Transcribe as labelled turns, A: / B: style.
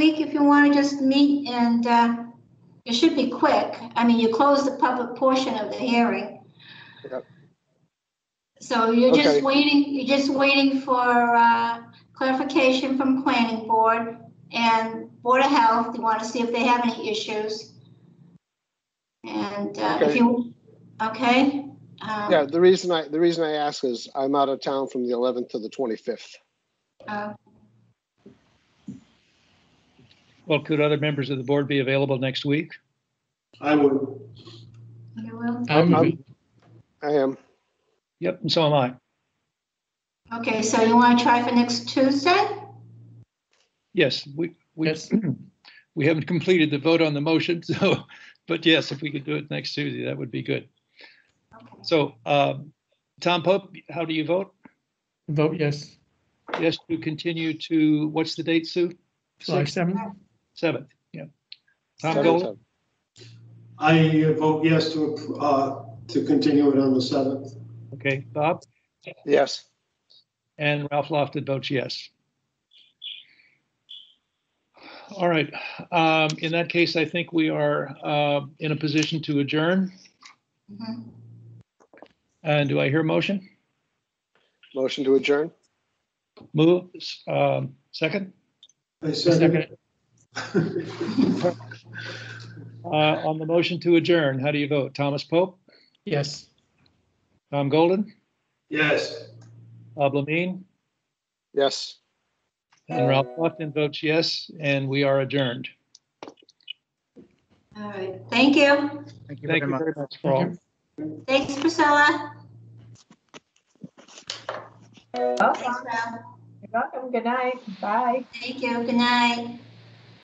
A: week if you want to just meet and uh, it should be quick. I mean, you close the public portion of the hearing.
B: Yep.
A: So you're just
B: Okay.
A: waiting, you're just waiting for uh, clarification from planning board and Board of Health. You want to see if they have any issues. And uh, if
B: Okay.
A: you, okay? um,
B: Yeah, the reason I, the reason I ask is I'm out of town from the 11th to the 25th.
A: uh,
C: Well, could other members of the board be available next week?
D: I would.
A: You will?
B: I'm- I am,
C: Yep, and so am I.
A: Okay, so you want to try for next Tuesday?
C: Yes, we, we, we haven't completed the vote on the motion, so, but yes, if we could do it next Tuesday, that would be good.
A: Okay.
C: So, um, Tom Pope, how do you vote?
E: Vote yes,
C: Yes, to continue to, what's the date, Sue?
E: July
C: Sixth,
E: 7th.
C: Seventh, yeah. Tom
B: Seven,
C: Gold,
B: seven.
D: I vote yes to, appro- uh, to continue it on the 7th.
C: okay, Bob,
B: Yes,
C: and Ralph Lofton votes yes. All right, um, in that case, I think we are, uh, in a position to adjourn.
A: Mhm.
C: And do I hear a motion?
B: motion to adjourn.
C: Move, um, second,
D: I
E: Second
D: second.
E: it.
C: uh, on the motion to adjourn, how do you vote? Thomas Pope,
E: Yes.
C: Tom Golden,
D: Yes.
C: Bob Lamine,
B: Yes.
C: and Ralph Lofton votes yes, and we are adjourned.
A: All right, thank you.
F: Thank you very
C: Thank you
F: much.
C: very much for all.
A: Thanks, Priscilla. Thanks, Rob.
G: You're welcome. Good night. Bye.
A: Thank you. Good night.